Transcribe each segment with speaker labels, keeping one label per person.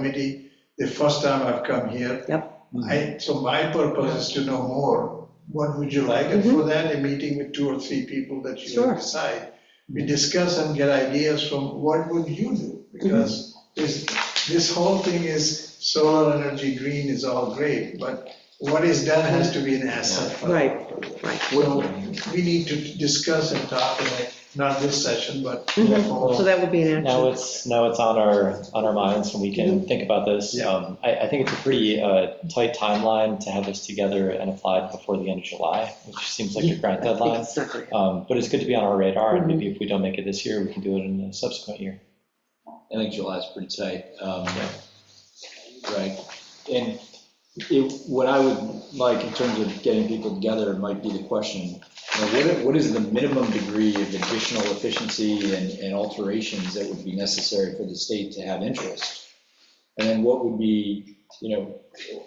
Speaker 1: committee, the first time I've come here.
Speaker 2: Yep.
Speaker 1: I, so my purpose is to know more, what would you like, and for that, a meeting with two or three people that you
Speaker 2: Mm-hmm. Sure.
Speaker 1: decide. We discuss and get ideas from what would you do, because
Speaker 2: Mm-hmm.
Speaker 1: this, this whole thing is solar energy, green is all great, but what is done has to be an asset. for the
Speaker 2: Right.
Speaker 1: property.
Speaker 2: Right.
Speaker 1: So we need to discuss and talk, and like, not this session, but.
Speaker 2: Mhm.
Speaker 3: Mm-hmm.
Speaker 2: So that would be an
Speaker 4: Now
Speaker 2: action.
Speaker 4: it's, now it's on our, on our minds and we can
Speaker 2: Mm-hmm.
Speaker 4: think about this.
Speaker 1: Yeah.
Speaker 4: Um, I, I think it's a pretty uh, tight timeline to have this together and applied before the end of July, which seems like a
Speaker 2: I
Speaker 4: grand
Speaker 2: think
Speaker 4: deadline.
Speaker 2: it's not gonna happen.
Speaker 4: Um, But it's good to be on our radar and
Speaker 2: Mhm.
Speaker 4: maybe if we don't make it this year, we can do it in a subsequent year.
Speaker 3: I think July's pretty tight. um, Right, and it, what I would like in terms of getting people together might be the question, you know, what, what is the minimum degree of additional efficiency and, and alterations that would be necessary for the state to have interest? And then what would be, you know,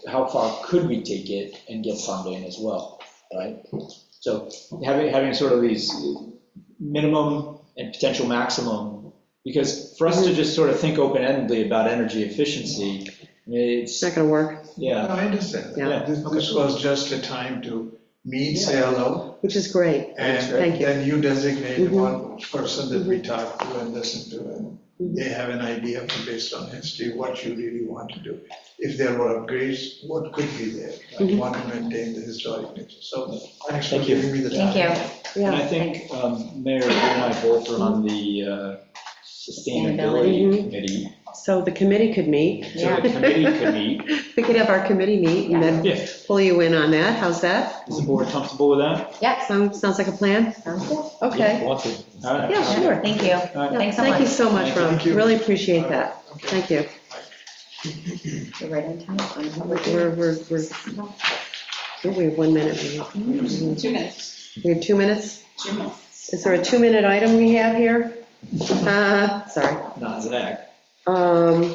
Speaker 3: how far could we take it and get funding as well, right? So having, having sort of these minimum and potential maximum, because for us to just sort of think open-endedly about energy efficiency, I mean,
Speaker 2: It's
Speaker 3: it's,
Speaker 2: not gonna work,
Speaker 3: yeah.
Speaker 1: No, I understand.
Speaker 2: Yeah.
Speaker 1: This this was just a time to meet, say hello,
Speaker 2: which is great.
Speaker 1: and
Speaker 2: Thank you. Mm-hmm.
Speaker 1: then you designate
Speaker 2: Mhm.
Speaker 1: one person that we talk to and listen to, and
Speaker 2: Mm-hmm.
Speaker 1: they have an idea based on history, what you really want to do. If there were upgrades, what could be there? I
Speaker 2: Mhm.
Speaker 1: want to maintain the historic nature, so thanks for
Speaker 4: Thank you.
Speaker 1: giving me the time.
Speaker 5: Thank you.
Speaker 2: Yeah.
Speaker 3: And I think, um, Mayor, you and I both are on the uh,
Speaker 2: Sustainability.
Speaker 3: Sustainability Committee.
Speaker 2: So the committee could meet.
Speaker 3: So the committee could meet.
Speaker 2: We could have our committee meet and then
Speaker 3: Yeah.
Speaker 2: pull you in on that. How's that?
Speaker 3: Is the board comfortable with that?
Speaker 5: Yep,
Speaker 2: Sounds, sounds like a plan?
Speaker 5: sounds good.
Speaker 4: If
Speaker 2: Okay.
Speaker 4: you want to.
Speaker 3: All right.
Speaker 2: Yeah, sure.
Speaker 5: Thank you.
Speaker 3: All right.
Speaker 2: Yeah,
Speaker 5: Thanks so
Speaker 2: Thank you
Speaker 5: much.
Speaker 2: so much,
Speaker 3: Thank
Speaker 2: Ron.
Speaker 1: you.
Speaker 2: Really appreciate that.
Speaker 1: Okay.
Speaker 2: Thank you.
Speaker 5: You're right on time.
Speaker 2: We're, we're, we're, oh, we have one minute. we have-
Speaker 5: Two minutes.
Speaker 2: We have two minutes?
Speaker 5: Two minutes.
Speaker 2: Is there a two-minute item we have here? Uh, sorry.
Speaker 3: Not Zach.
Speaker 2: Um,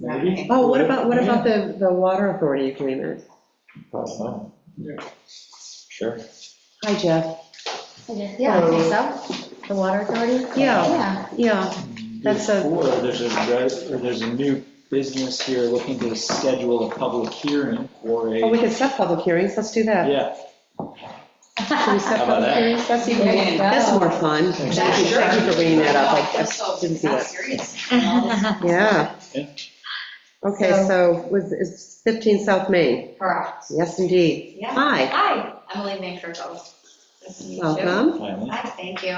Speaker 3: Maybe?
Speaker 2: oh, what about, what about the, the water authority agreement?
Speaker 4: Oh, Sure.
Speaker 2: Hi, Jeff.
Speaker 5: Yeah, I think so. The water authority?
Speaker 2: Yeah.
Speaker 5: Yeah.
Speaker 2: Yeah, That's a-
Speaker 3: Before, there's a, re- or there's a new business here looking to schedule a public hearing for
Speaker 2: oh, we
Speaker 3: a,
Speaker 2: can set public hearings. Let's do that.
Speaker 3: yeah.
Speaker 2: Can we set
Speaker 3: How about
Speaker 2: public
Speaker 3: that?
Speaker 2: hearings? That's even,
Speaker 5: There you go.
Speaker 2: that's more fun. Thank you thank you for bringing that up. I- I didn't see that. Yeah.
Speaker 3: Yeah.
Speaker 2: Okay,
Speaker 5: So-
Speaker 2: so was, is 15 South Main?
Speaker 5: Correct.
Speaker 2: Yes, indeed.
Speaker 5: Yeah.
Speaker 2: Hi,
Speaker 5: Hi, Emily Mankerfeld. Nice to meet you.
Speaker 2: welcome.
Speaker 3: finally.
Speaker 5: Hi, thank you.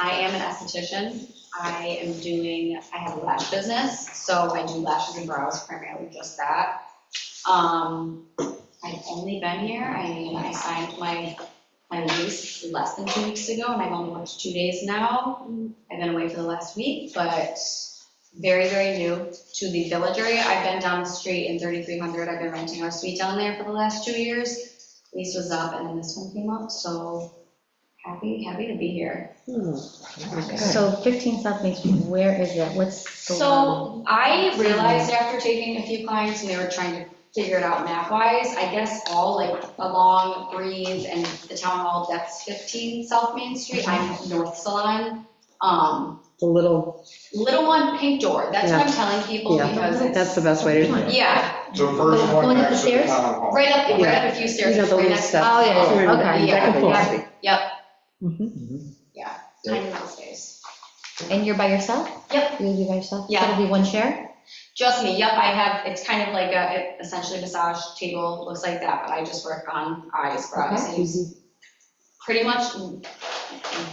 Speaker 5: I am an esthetician. I am doing, I have a lash business, so I do lashes and brows primarily, just that. Um, I've only been here, I mean, I signed my, my lease less than two weeks ago, and I've only worked two days now. I've been away for the last week, but very, very new to the village area. I've been down the street in 3300, I've been renting our suite down there for the last two years. Lease was up, and then this one came up, so Happy, happy to be here.
Speaker 2: Hmm,
Speaker 6: So 15 South Main Street, where is that? What's the? um,
Speaker 5: So I realized after taking a few clients and they were trying to figure it out map-wise, I guess all like along Breeze and the town hall, that's 15 South Main Street. I'm North Salon. Um,
Speaker 2: The little,
Speaker 5: Little one, pink door. That's what I'm telling people
Speaker 2: Yeah.
Speaker 5: because
Speaker 2: that's the
Speaker 5: it's,
Speaker 2: best way to,
Speaker 5: yeah,
Speaker 7: The first one
Speaker 6: Going up the
Speaker 7: next to the
Speaker 6: stairs?
Speaker 7: town hall.
Speaker 5: right up, right up a few
Speaker 2: you
Speaker 5: stairs.
Speaker 2: know, the
Speaker 5: right
Speaker 2: little
Speaker 5: next-
Speaker 2: stuff.
Speaker 6: Oh, yeah, yeah, okay,
Speaker 2: Back and
Speaker 5: yeah,
Speaker 2: forth. Mm-hmm.
Speaker 5: Yep,
Speaker 3: Mhm.
Speaker 5: tiny little space.
Speaker 6: And you're by yourself?
Speaker 5: Yep.
Speaker 6: You'll be by yourself?
Speaker 5: Yeah.
Speaker 6: It'll be one chair?
Speaker 5: Just me, yep, I have, it's kind of like a, essentially massage table, looks like that, but I just work on eyes, brows,
Speaker 6: Okay.
Speaker 5: and pretty much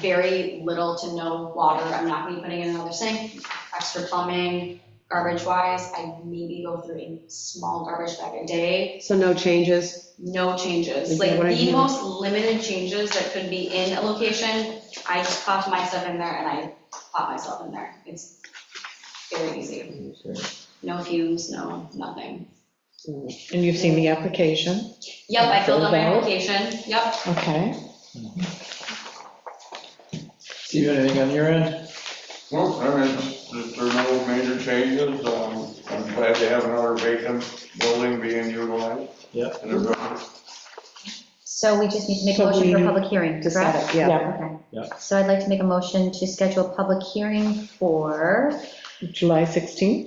Speaker 5: very little to no water. I'm not gonna be putting in another sink, extra plumbing, garbage wise, I maybe go through a small garbage bag a day.
Speaker 2: So no changes?
Speaker 5: No changes,
Speaker 2: Okay,
Speaker 5: like
Speaker 2: what I
Speaker 5: the
Speaker 2: hear-
Speaker 5: most limited changes that could be in a location, I just pop my stuff in there and I pop myself in there. It's very easy. No fumes, no, nothing.
Speaker 8: And you've seen the application,
Speaker 5: Yep, I filled out my
Speaker 8: Filled out?
Speaker 5: application, yep.
Speaker 8: okay.
Speaker 3: Steven, anything on your end?
Speaker 7: Well, I mean, if there are no major changes, um, I'm glad to have another vacant building being utilized.
Speaker 3: Yeah.
Speaker 7: And everybody-
Speaker 6: So we just need to make a
Speaker 8: So
Speaker 6: motion for
Speaker 8: we
Speaker 6: a public hearing,
Speaker 2: To set
Speaker 6: correct?
Speaker 2: it, yeah.
Speaker 8: Yeah.
Speaker 6: Okay.
Speaker 3: Yeah.
Speaker 6: So I'd like to make a motion to schedule a public hearing for
Speaker 2: July 16th?